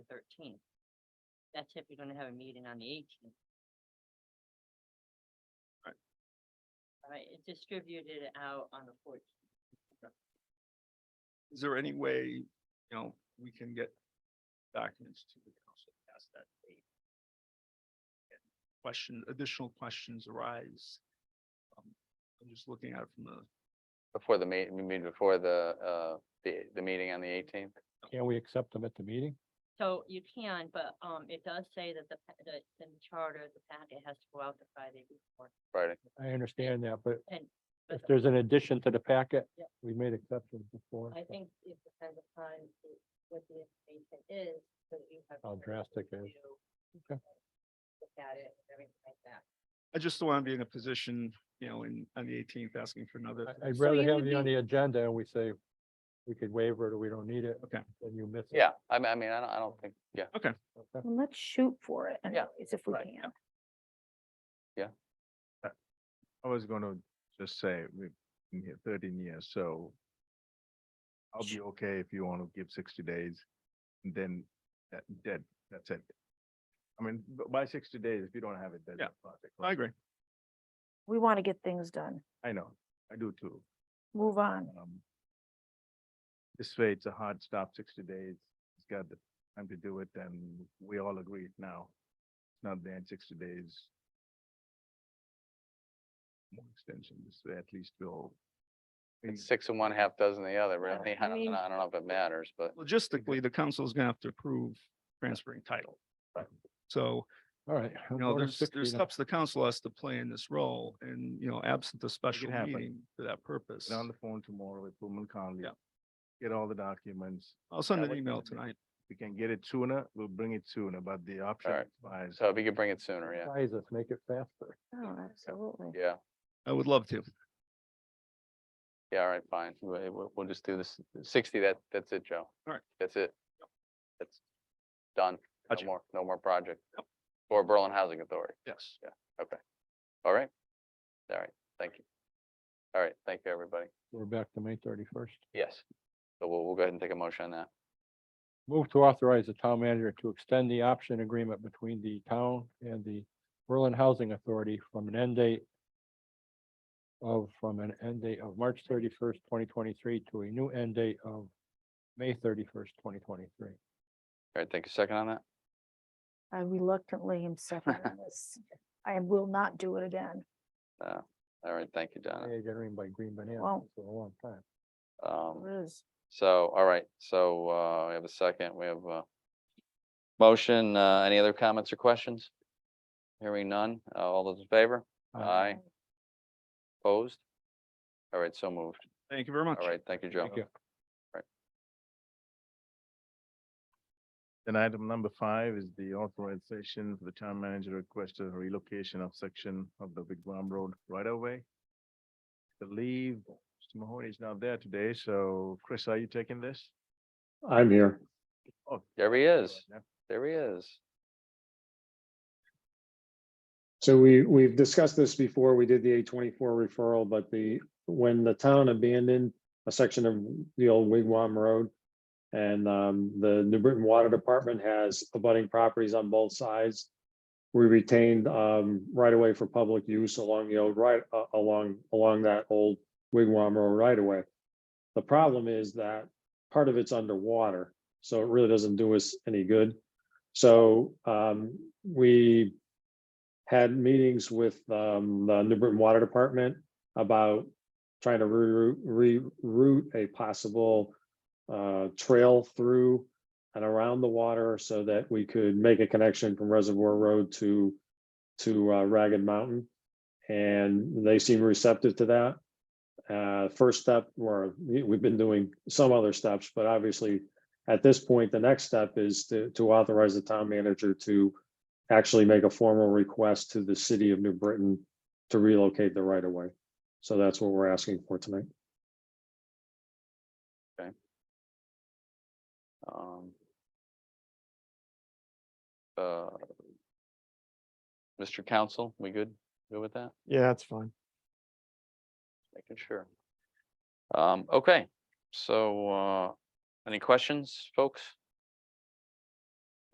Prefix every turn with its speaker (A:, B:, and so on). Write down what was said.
A: thirteenth. That's if you're gonna have a meeting on the eighteenth.
B: Right.
A: All right, it's distributed out on the fourteenth.
B: Is there any way, you know, we can get documents to the council past that date? And Question, additional questions arise. Um, I'm just looking at it from the,
C: Before the meet, we mean before the, uh, the, the meeting on the eighteenth?
D: Can we accept them at the meeting?
A: So you can, but, um, it does say that the, pa- the, the charter, the packet has to go out the Friday before.
C: Friday.
D: I understand that, but
A: But
D: if there's an addition to the packet,
A: Yeah.
D: we made exceptions before.
A: I
D: so
A: think it depends upon the- what the information is, so that you have.
D: How
A: time to
D: drastic it is.
A: review,
D: Okay.
A: Look at it, and everything like that.
B: I just don't want to be in a position, you know, in, on the eighteenth, asking for another.
D: I- I'd
E: So
D: rather
E: you
D: have
E: would
D: you on
E: be-
D: the agenda and we say, we could waiver it or we don't need it.
B: Okay.
D: And you miss it.
C: Yeah, I mean, I mean, I don't, I don't think, yeah,
D: Okay.
E: Well, let's shoot for it
C: Yeah,
E: anyways, if we
C: right,
E: can.
F: I was gonna just say, we've been here thirteen years, so I'll be okay if you want to give sixty days, and then that, that, that's it. I mean, b- by sixty days, if you don't have it, then.
B: Yeah,
F: it's not a
B: I agree.
E: We want to get things done.
F: I know, I do too.
E: Move on.
F: Um, This way, it's a hard stop, sixty days, it's got the time to do it, and we all agree it now. It's Not there in sixty days. More extension, this way at least we'll. we-
C: it's six and one half dozen the other,
E: Yeah,
C: really.
E: I
C: I don't,
E: mean-
C: I don't know if it matters, but
B: Logistically, the council is gonna have to approve transferring title.
C: Right.
B: So,
D: All right.
B: you
D: I'm
B: know,
D: voting
B: there's,
D: 60
B: there's
D: then.
B: steps the council has to play in this role and, you know, absent a special
F: happen.
B: meeting for that purpose.
F: Get on the phone tomorrow with Pullman Conley.
B: Yeah.
F: Get all the documents.
B: I'll send
F: Yeah,
B: an
F: what-
B: email tonight.
F: If we can get it sooner, we'll bring it sooner, but the option
C: Alright.
F: expires.
C: so if you could bring it sooner, yeah,
D: Size us, make it faster.
E: Oh, absolutely.
C: yeah,
B: I would love to.
C: yeah, all right, fine. We'll, we'll- we'll just do this sixty, that, that's it, Joe.
B: All right.
C: That's it. That's done. No
B: Gotcha.
C: more, no more project.
B: Yep.
C: Or Berlin Housing Authority.
B: Yes.
C: All right? All right, thank you. All right, thank you, everybody.
D: We're back to May thirty-first.
C: Yes. So we'll, we'll go ahead and take a motion on that.
D: Move to authorize the town manager to extend the option agreement between the town and the Berlin Housing Authority from an end date of, from an end date of March thirty-first, twenty twenty-three to a new end date of May thirty-first, twenty twenty-three.
C: All right, take a second on that.
E: I reluctantly am seconding this. I will not do it again.
C: All right, thank you,
D: I
C: Donna.
D: ain't getting by green bananas
E: Well-
D: for a long time.
C: Um,
E: It is.
C: So, all right, so uh, we have a second, we have a motion, uh, any other comments or questions? Hearing none, uh, all those in favor? Aye. Opposed? All right, so moved.
B: Thank you very much.
C: All right, thank you, Joe.
D: Thank you.
F: Then item number five is the authorization for the town manager to request a relocation of section of the Big Bomb Road right away. Believe Mr. Mahoney is not there today, so Chris, are you taking this?
D: I'm here.
F: Oh,
C: There he is,
F: yeah.
C: there he is.
G: So we, we've discussed this before. We did the A twenty-four referral, but the, when the town abandoned a section of the old Wigwam Road. And um, the New Britain Water Department has abutting properties on both sides. We retained um, right away for public use along the old right, uh, along, along that old Wigwam Road right away. The problem is that part of it's underwater, so it really doesn't do us any good. So um, we had meetings with um, the New Britain Water Department about trying to reroute, reroute a possible uh, trail through and around the water so that we could make a connection from Reservoir Road to to uh, Ragged Mountain. And they seem receptive to that. Uh, first step, where we've been doing some other steps, but obviously at this point, the next step is to to authorize the town manager to actually make a formal request to the city of New Britain to relocate the right of way. So that's what we're asking for tonight.
C: Um, uh, Mr. Council, we good, good with that?
H: Yeah, that's fine.
C: Making sure. Um, okay, so, uh, any questions, folks?